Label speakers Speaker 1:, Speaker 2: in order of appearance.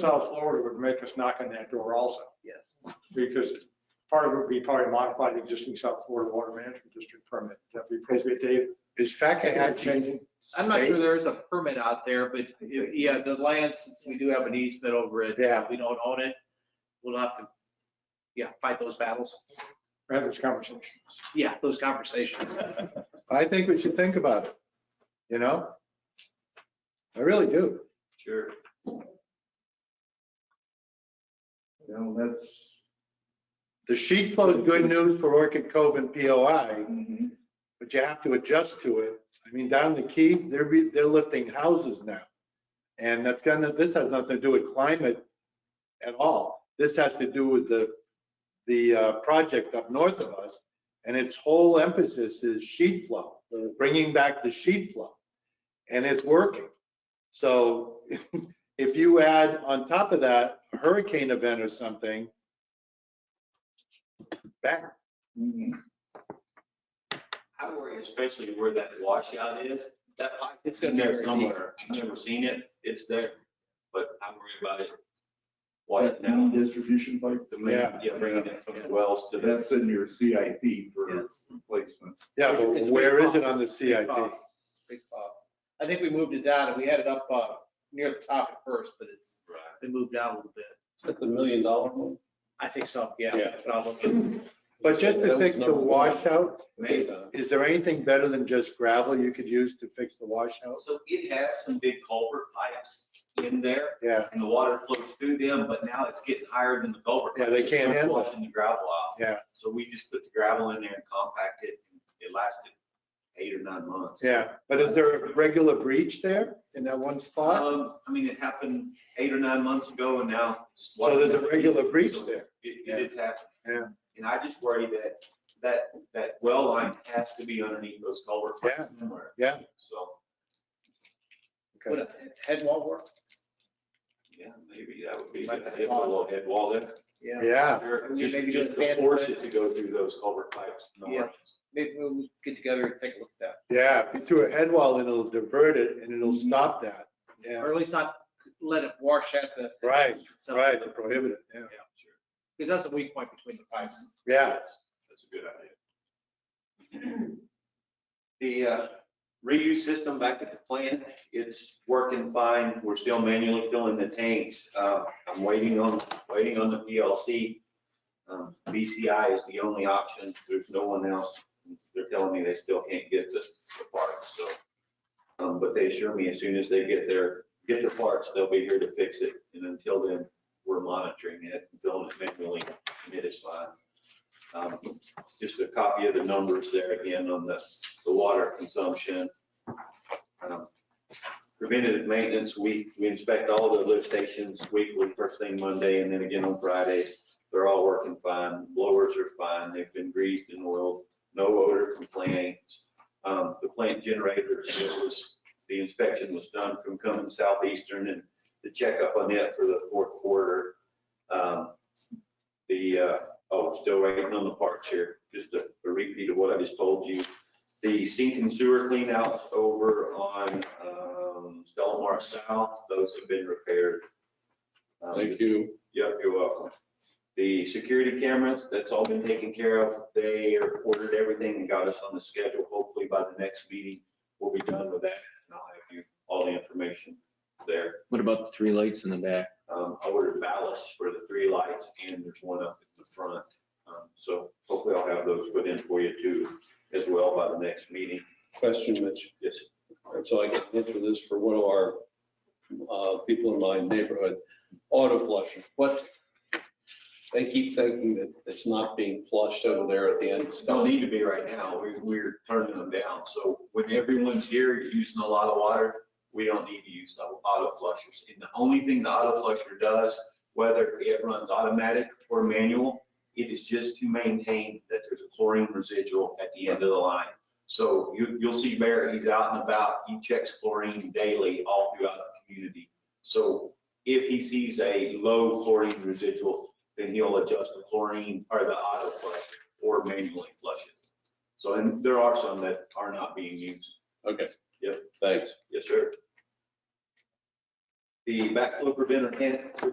Speaker 1: South Florida would make us knock on that door also,
Speaker 2: Yes.
Speaker 1: because part of it would be probably modify the existing South Florida Water Management District permit. That'd be appropriate, Dave.
Speaker 3: Is FACA actually?
Speaker 1: Changing.
Speaker 2: I'm not sure
Speaker 3: state?
Speaker 2: there is a permit out there, but yeah, the land, since we do have an easement over it,
Speaker 3: Yeah,
Speaker 2: we don't own it. We'll have to, yeah, fight those battles.
Speaker 1: Have this conversation.
Speaker 2: Yeah, those conversations.
Speaker 3: I think we should think about it, you know? I really do.
Speaker 2: Sure.
Speaker 3: You know, that's. The sheet flow is good news for Orchid Cove and POI, but you have to adjust to it. I mean, down the key, they're, re- they're lifting houses now. And that's gonna, this has nothing to do with climate at all. This has to do with the, the uh, project up north of us. And its whole emphasis is sheet flow, bringing back the sheet flow. And it's working. So if you add on top of that a hurricane event or something, back,
Speaker 4: I worry especially where that washout is, that pipe
Speaker 2: It's
Speaker 4: is
Speaker 2: gonna
Speaker 4: in
Speaker 2: be
Speaker 4: there
Speaker 2: very
Speaker 4: somewhere. I've never seen it, it's there, but I worry about it washing out.
Speaker 5: Distribution pipe,
Speaker 4: The main-
Speaker 3: Yeah.
Speaker 4: Yeah, bringing it from the wells to the,
Speaker 5: that's in your CIP for
Speaker 2: Yes.
Speaker 5: replacement.
Speaker 3: yeah, but
Speaker 2: It's a big
Speaker 3: where is it
Speaker 2: cost.
Speaker 3: on the
Speaker 2: Big
Speaker 3: CIP?
Speaker 2: cost. Big cost. I think we moved it down and we had it up uh, near the top at first, but it's been moved down a little bit.
Speaker 6: That's a million dollar one.
Speaker 2: I think so, yeah.
Speaker 6: Yeah.
Speaker 2: that's what I'm looking-
Speaker 3: But just
Speaker 6: That
Speaker 3: to
Speaker 6: was
Speaker 3: fix the
Speaker 6: number one.
Speaker 3: washout,
Speaker 4: Maybe.
Speaker 3: is there anything better than just gravel you could use to fix the washout?
Speaker 4: So it has some big culvert pipes in there
Speaker 3: Yeah,
Speaker 4: and the water flows through them, but now it's getting higher than the culvert.
Speaker 3: Yeah,
Speaker 4: pipes.
Speaker 3: they
Speaker 4: It's
Speaker 3: can't handle it.
Speaker 4: Flushing the gravel out.
Speaker 3: yeah,
Speaker 4: So we just put the gravel in there and compact it. It lasted eight or nine months.
Speaker 3: yeah. But is there a regular breach there in that one spot?
Speaker 4: Um, I mean, it happened eight or nine months ago and now. it's-
Speaker 3: So there's a regular breach there.
Speaker 4: It,
Speaker 3: Yeah.
Speaker 4: it is happening.
Speaker 3: Yeah.
Speaker 4: And I just worry that, that, that well line has to be underneath those culverts.
Speaker 3: Yeah.
Speaker 4: somewhere.
Speaker 3: Yeah.
Speaker 4: So,
Speaker 3: Okay.
Speaker 2: Would a Head wall work?
Speaker 4: yeah, maybe that would be, a good idea, put a little head wall there.
Speaker 3: Yeah,
Speaker 4: Or
Speaker 2: We
Speaker 4: Just,
Speaker 2: maybe
Speaker 4: just
Speaker 2: just
Speaker 4: to
Speaker 2: ban
Speaker 4: force
Speaker 2: it.
Speaker 4: it to go through those culvert pipes. in the
Speaker 2: Yeah.
Speaker 4: mornings.
Speaker 2: Maybe we'll get together and take a look at
Speaker 3: yeah. If you threw a head wall in, it'll divert it and it'll
Speaker 6: Mm-hmm.
Speaker 3: stop that.
Speaker 2: that.
Speaker 3: Yeah,
Speaker 2: Or at least not let it wash at the.
Speaker 3: right, right, to prohibit it, yeah.
Speaker 4: Yeah, sure.
Speaker 2: Because that's a weak point between the pipes.
Speaker 3: Yeah,
Speaker 4: That's a good idea. The uh, reuse system back at the plant, it's working fine. We're still manually filling the tanks. Uh, I'm waiting on, waiting on the PLC. Um, BCI is the only option. There's no one else. They're telling me they still can't get the the parts, so. um, But they assure me as soon as they get their, get the parts, they'll be here to fix it. And until then, we're monitoring it, filling it manually, and it is fine. Um, Just a copy of the numbers there again on the, the water consumption. Um, Preventative maintenance, we, we inspect all the lift stations weekly, first thing Monday, and then again on Friday. They're all working fine, blowers are fine, they've been greased and oiled, no odor complaints. Um, The plant generator, it was, the inspection was done from coming southeastern and the checkup on it for the fourth quarter. Um, The, uh, Oh, still waiting on the parts here, just a a repeat of what I just told you. The sink and sewer cleanouts over on um, Stellamar South, those have been repaired. Um,
Speaker 6: Thank you.
Speaker 4: Yep, you're welcome. The security cameras, that's all been taken care of. They ordered everything and got us on the schedule. Hopefully by the next meeting, we'll be done with that. And I'll have you, all the information there.
Speaker 6: What about the three lights in the back?
Speaker 4: Um, I ordered ballasts for the three lights and there's one up at the front. Um, So hopefully I'll have those put in for you too, as well by the next meeting.
Speaker 6: Question, Mitch.
Speaker 4: Yes,
Speaker 6: So I can answer this for one of our uh, people in my neighborhood. Auto flushing, what? They keep thinking that it's not being flushed over there at the end. of
Speaker 4: It's don't need to be right now. We're, we're turning them down. So when everyone's here using a lot of water, we don't need to use the auto flushers. And the only thing the auto flusher does, whether it runs automatic or manual, it is just to maintain that there's a chlorine residual at the end of the line. So you, you'll see Barrett, he's out and about, he checks chlorine daily all throughout the community. So if he sees a low chlorine residual, then he'll adjust the chlorine or the auto flush or manually flush it. So, and there are some that are not being used.
Speaker 6: Okay.
Speaker 4: Yep.
Speaker 6: Thanks.
Speaker 4: Yes, sir. The backflow preventer can